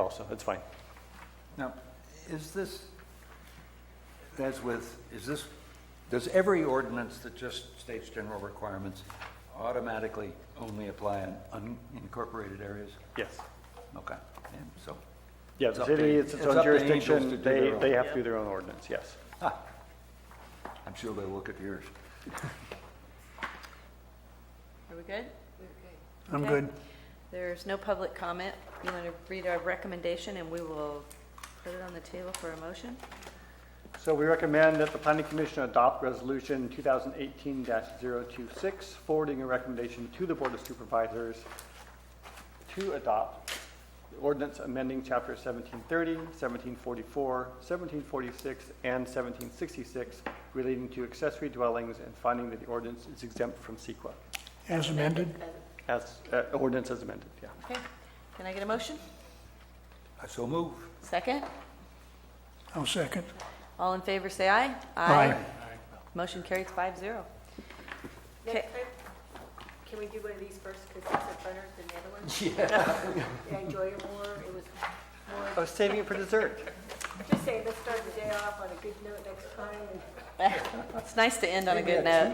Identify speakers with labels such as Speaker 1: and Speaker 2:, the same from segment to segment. Speaker 1: also, it's fine.
Speaker 2: Now, is this, as with, is this, does every ordinance that just states general requirements automatically only apply in unincorporated areas?
Speaker 1: Yes.
Speaker 2: Okay, and so,
Speaker 1: Yeah,
Speaker 2: It's
Speaker 1: the
Speaker 2: up to-
Speaker 1: city, it's its
Speaker 2: it's
Speaker 1: own
Speaker 2: up to Angels to
Speaker 1: jurisdiction,
Speaker 2: do
Speaker 1: they,
Speaker 2: their own.
Speaker 1: they have to do their own ordinance, yes.
Speaker 2: I'm sure they'll look at yours.
Speaker 3: Are we good?
Speaker 4: I'm
Speaker 3: Okay.
Speaker 4: good.
Speaker 3: There's no public comment. You want to read our recommendation, and we will put it on the table for a motion?
Speaker 1: So we recommend that the planning commission adopt resolution 2018-026, forwarding a recommendation to the board of supervisors to adopt the ordinance amending chapter 1730, 1744, 1746, and 1766 relating to accessory dwellings and finding that the ordinance is exempt from CEQA,
Speaker 4: As amended?
Speaker 1: as, uh, ordinance as amended, yeah.
Speaker 3: Okay. Can I get a motion?
Speaker 2: I so move.
Speaker 3: Second?
Speaker 4: I'll second.
Speaker 3: All in favor, say aye.
Speaker 4: Aye.
Speaker 3: Motion carries five zero. Okay.
Speaker 5: Next time, can we do one of these first, because it's better than the other one? Yeah. I enjoy it more, it was
Speaker 1: I
Speaker 2: Oh,
Speaker 5: more,
Speaker 1: was saving it for dessert.
Speaker 5: just saying, let's start the day off on a good note next time, and
Speaker 3: It's nice to end on a good note.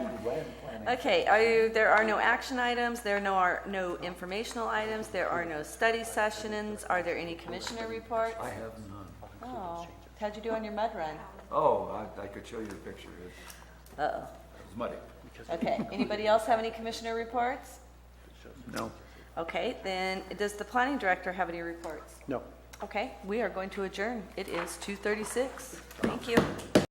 Speaker 3: Okay, are you, there are no action items, there are no, are no informational items, there are no study sessions. Are there any commissioner reports?
Speaker 2: I have none.
Speaker 3: Oh, how'd you do on your mud run?
Speaker 2: Oh, I, I could show you the picture, it's
Speaker 3: Uh-oh.
Speaker 2: it's muddy.
Speaker 3: Okay, anybody else have any commissioner reports?
Speaker 2: No.
Speaker 3: Okay, then, does the planning director have any reports?
Speaker 1: No.
Speaker 3: Okay, we are going to adjourn. It is 2:36. Thank you.